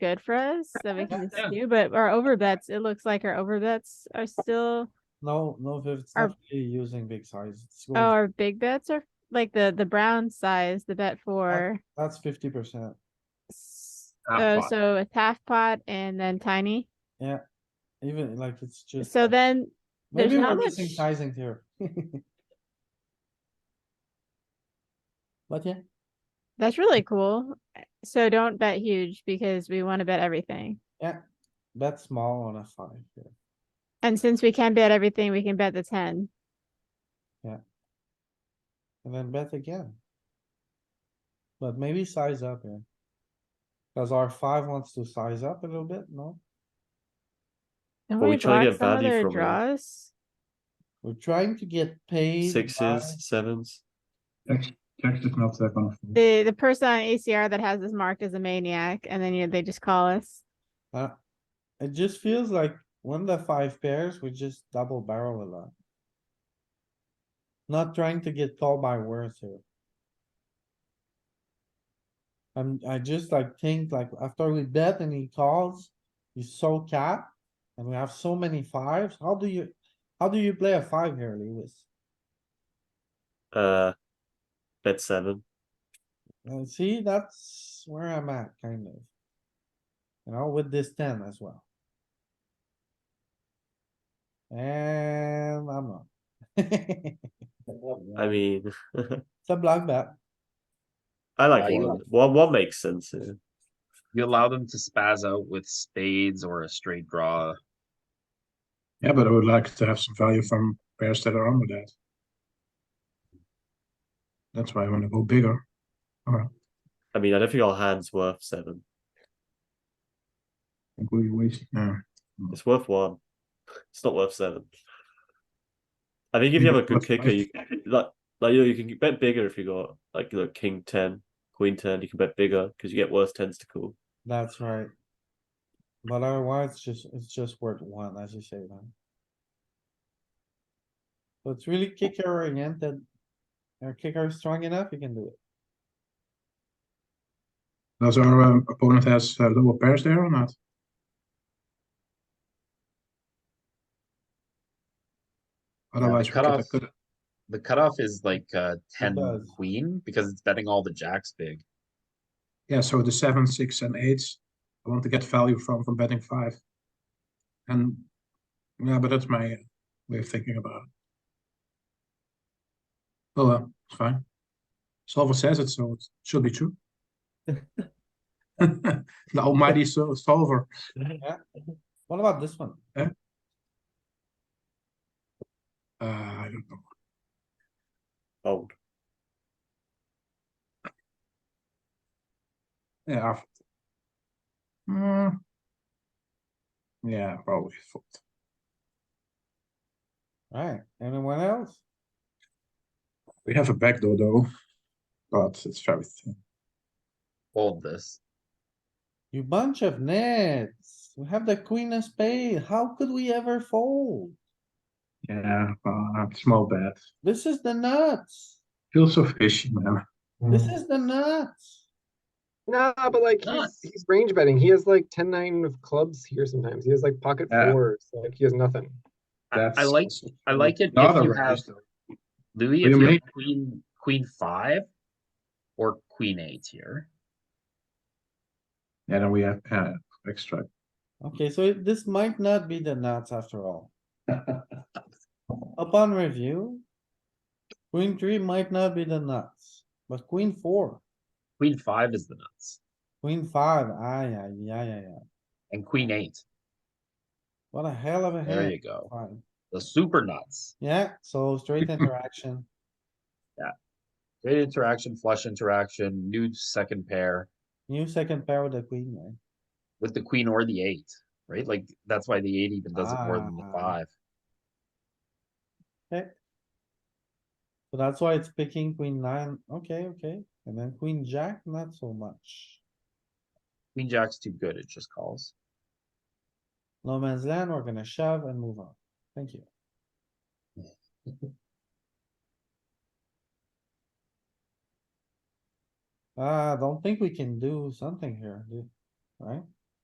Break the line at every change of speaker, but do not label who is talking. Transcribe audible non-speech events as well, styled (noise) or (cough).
good for us that we can
Yeah.
do, but our overbets, it looks like our overbets are still,
No, no, if it's
Our-
not really using big size. it's
oh,
going-
our big bets are like the, the brown size, the bet for.
That's fifty percent.
s-
Half
Oh,
pot.
so it's half pot and then tiny.
Even like it's just.
So
like-
then there's
Maybe
not
we're missing
much-
sizing here. (laughs) But yeah,
that's really cool. So don't bet huge because we want to bet everything.
bet small on a five here.
And since we can bet everything, we can bet the ten.
And then bet again. But maybe size up here. Cause our five wants to size up a little bit, no?
Don't
Well, we try
block
to get
some of
value
their
from it.
Draws.
We're trying to get paid. by-
Sixes, sevens.
Text, text is not that kind of thing.
The, the person on ACR that has this marked as a maniac and then you know, they just call us.
Uh, it just feels like when the five pairs, we just double barrel a lot. Not trying to get called by words here. I'm, I just like think like after we bet and he calls, he's so capped. And we have so many fives, how do you, how do you play a five here, Lewis?
Uh, bet seven.
And see, that's where I'm at, kind of. You know, with this ten as well. And I'm (laughs) not.
I mean,
It's a block bet.
I
Yeah,
like
you
one. One one makes sense. yeah.
You allow them to spaz out with spades or a straight draw.
Yeah, but I would like to have some value from pairs that are under that. That's why I want to go bigger.
I mean, I don't think our hand's worth seven.
I think we waste. Yeah.
It's worth one. It's not worth seven. I think if you
Yeah,
have a good
plus
kicker,
five.
you like like you know you can bet bigger if you got like you know king ten, queen ten. You can bet bigger because you get worse tens to call.
That's right. But otherwise, it's just, it's just worth one, as you say, man. So it's really kicker oriented. Our kicker is strong enough, you can do it.
Does our um, opponent has uh, lower pairs there or not? Otherwise, we could-
cutoff-
could-
The cutoff is like uh ten
does.
queen because it's betting all the jacks big.
yeah. So the seven, six, and eights. I want to get value from from betting five. And yeah, but that's my way of thinking about it. Well, uh, it's fine. Solver says it, so it should be true. the almighty sol- solver.
What about this one?
Uh, I don't know.
Old.
Yeah. I've- Mm. Yeah, probably. fold.
Alright, anyone else?
We have a backdoor though, but it's very thin.
Fold this.
You bunch of nits. We have the queen of spade. How could we ever fold?
Yeah, but small bet.
This is the nuts.
Feels so fishy, man.
This
Hmm.
is the nuts.
Nah, but like he's,
Nuts.
he's range betting. He has like 10 9 of clubs here sometimes. He has like pocket
Yeah.
fours. Like he has nothing.
I, I
That's
like
also
I like it
the other
if you
range,
have
though. What
Louis,
do
if
you
you
mean?
have queen queen five or queen eight here.
Yeah, then we have uh, extra. (laughs)
Okay, so it- this might not be the nuts after all. Upon review. Queen three might not be the nuts, but queen four,
Queen five is the nuts.
queen five, ah, yeah, yeah, yeah, yeah.
And queen eight.
What a hell of a hand.
There you go.
Fine.
The super nuts.
Yeah, so straight
(laughs)
interaction.
Great interaction, flush interaction, new second pair
New second pair with the queen, man.
with the queen or the eight, right? Like that's why the eight even does it more than the
Ah.
five.
So that's why it's picking queen nine. Okay, okay. And then queen jack, not so much.
Queen jack's too good, it just calls.
No man's land, we're gonna shove and move on. Thank you. (laughs) Uh, I don't think we can do something here, do- right?